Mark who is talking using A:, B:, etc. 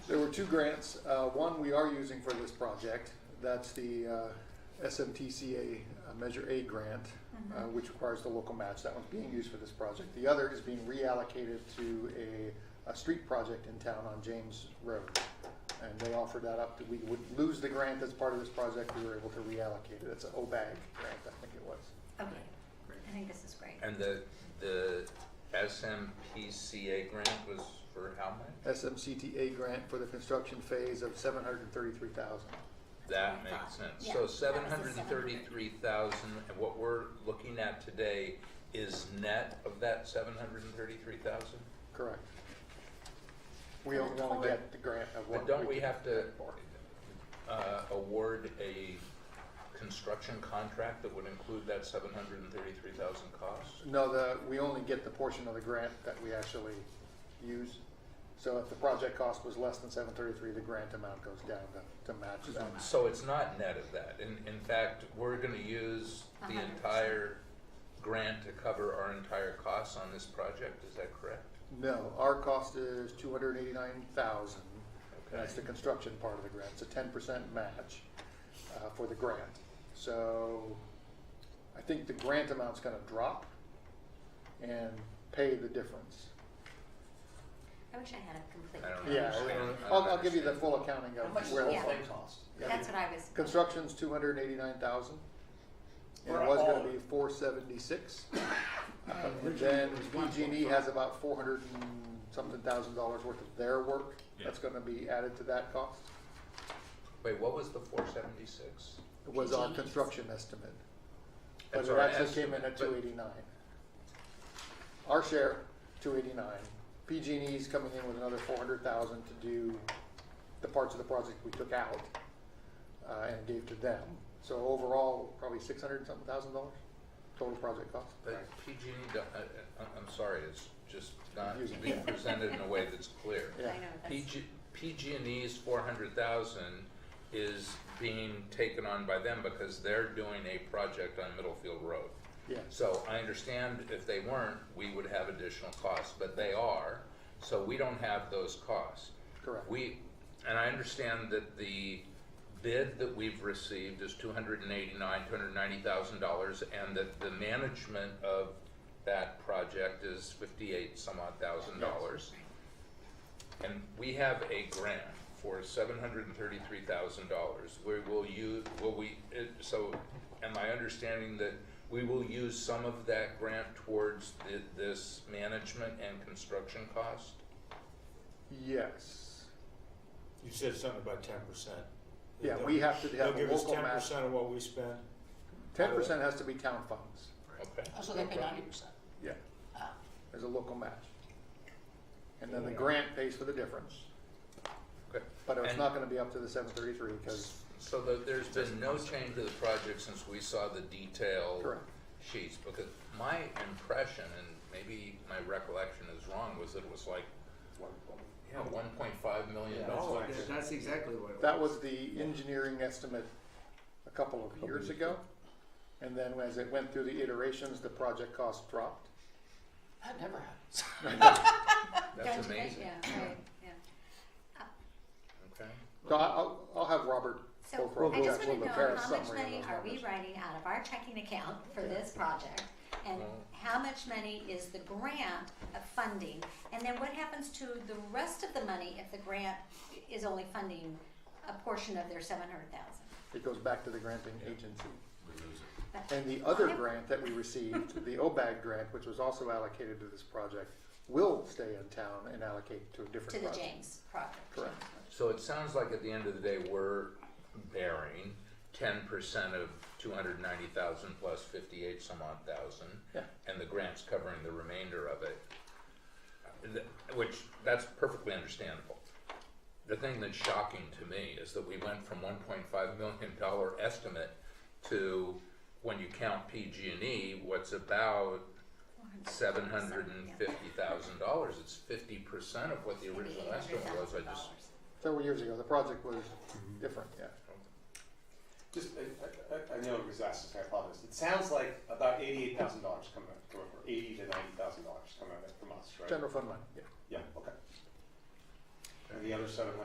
A: were two grants. Uh, one we are using for this project. That's the uh, SMTCA uh, Measure A grant, uh, which requires the local match. That one's being used for this project. The other is being reallocated to a, a street project in town on James Road. And they offered that up. We would lose the grant that's part of this project. We were able to reallocate it. It's an OBAG grant, I think it was.
B: Okay, I think this is great.
C: And the, the SMPCA grant was for how much?
A: SMCTA grant for the construction phase of seven hundred and thirty-three thousand.
B: what
C: That
B: I
C: makes
B: thought.
C: sense.
B: Yeah,
C: So
B: that was the
C: seven hundred and thirty-three thousand, and what we're looking at today is net of that seven hundred and thirty-three thousand?
A: Correct. We only want to get the grant of what.
C: But don't we
A: can-
C: have to, uh, award a construction contract that would include that seven hundred and thirty-three thousand cost?
A: No, the, we only get the portion of the grant that we actually use. So if the project cost was less than seven thirty-three, the grant amount goes down to, to match that.
C: So it's not net of that. In, in fact, we're gonna use the
B: 100%.
C: entire grant to cover our entire costs on this project, is that correct?
A: No, our cost is two hundred and eighty-nine thousand.
C: Okay.
A: That's the construction part of the grant. It's a ten percent match, uh, for the grant. So I think the grant amount's gonna drop and pay the difference.
B: I wish I had a complete.
C: I don't
B: count.
A: Yeah,
C: understand.
A: I'll, I'll give you the full accounting
D: How much
A: of
D: does
A: where
D: the
A: the
B: Yeah.
D: whole thing cost?
A: Yeah.
B: That's what I was.
A: Construction's two hundred and eighty-nine thousand. And
D: For
A: it was
D: all
A: gonna
D: of
A: be
D: it.
A: four seventy-six. And
E: originally
A: then
E: it was
A: PG&E
E: 1.5.
A: has about four hundred and something thousand dollars worth of their work. That's gonna be added to that cost.
C: Wait, what was the four seventy-six?
A: It was our
B: PG&E's.
D: E.
A: construction estimate. But
C: That's
A: it
C: our
A: actually came in
C: estimate,
A: at
C: but-
A: two eighty-nine. Our share, two eighty-nine. PG&E's coming in with another four hundred thousand to do the parts of the project we took out uh, and gave to them. So overall, probably six hundred and something thousand dollars total project cost.
C: But PG&E, E don't- I, I- I'm sorry, it's just not
A: Confusing.
C: being presented in a way that's clear.
B: I
A: Yeah.
B: know, that's-
C: PG, PG&E's four hundred thousand is being taken on by them because they're doing a project on Middlefield Road.
A: Yes,
C: So I understand if they weren't, we would have additional costs, but they are, so we don't have those costs.
A: correct.
C: We, and I understand that the bid that we've received is two hundred and eighty-nine, two hundred and ninety thousand dollars, and that the management of that project is fifty-eight some odd thousand dollars. And we have a grant for seven hundred and thirty-three thousand dollars, where will you, will we, it- so am I understanding that we will use some of that grant towards thi- this management and construction cost?
A: Yes.
E: You said something about ten percent.
A: Yeah, we have to have a local
E: They'll give us
A: match.
E: ten percent of what we spend.
A: Ten percent has to be town funds.
C: Okay.
D: Also, they pay ninety percent.
A: Yeah. As a local match. And then the grant pays for the difference,
C: Okay.
A: but it's
C: And-
A: not gonna be up to the seven thirty-three because,
C: So the- there's been no change to the project since we saw the detailed
A: correct.
C: sheets? Because my impression, and maybe my recollection is wrong, was that it was like, you know, one point five million
E: Yeah,
C: dollars.
E: that's
F: That's exactly what it was.
A: That was the engineering estimate a couple of years ago. And then as it went through the iterations, the project cost dropped.
D: That never happens.
C: That's
B: Don't you think?
C: amazing,
B: Yeah, right, yeah.
C: okay?
A: So I- I'll, I'll have Robert go for a
B: So I just wanna
A: we'll
B: know
A: prepare a
B: how much
A: summary of
B: money
A: those
B: are we
A: numbers.
B: writing out of our checking account for this project? And
C: Well-
B: how much money is the grant of funding? And then what happens to the rest of the money if the grant is only funding a portion of their seven hundred thousand?
A: It goes back to the granting agency.
B: But
A: And the other
B: Okay.
A: grant that we received, the OBAG grant, which was also allocated to this project, will stay in town and allocate to a different
B: to the
A: project.
B: James project.
A: Correct.
C: So it sounds like at the end of the day, we're bearing ten percent of two hundred ninety thousand plus fifty-eight some odd thousand.
A: Yeah.
C: And the grant's covering the remainder of it. Uh, th- Which, that's perfectly understandable. The thing that's shocking to me is that we went from one point five million dollar estimate to, when you count PG&E, E, what's about seven hundred and fifty thousand dollars. It's fifty percent of what the original estimate was. I just,
A: Several years ago, the project was different, yeah.
G: Just, I, I, I- I know it was asked, so I apologize. It sounds like about eighty-eight thousand dollars come out, come over, eighty to ninety thousand dollars come out of it from us, right?
A: General fund money, yeah.
G: Yeah, okay. And the other seven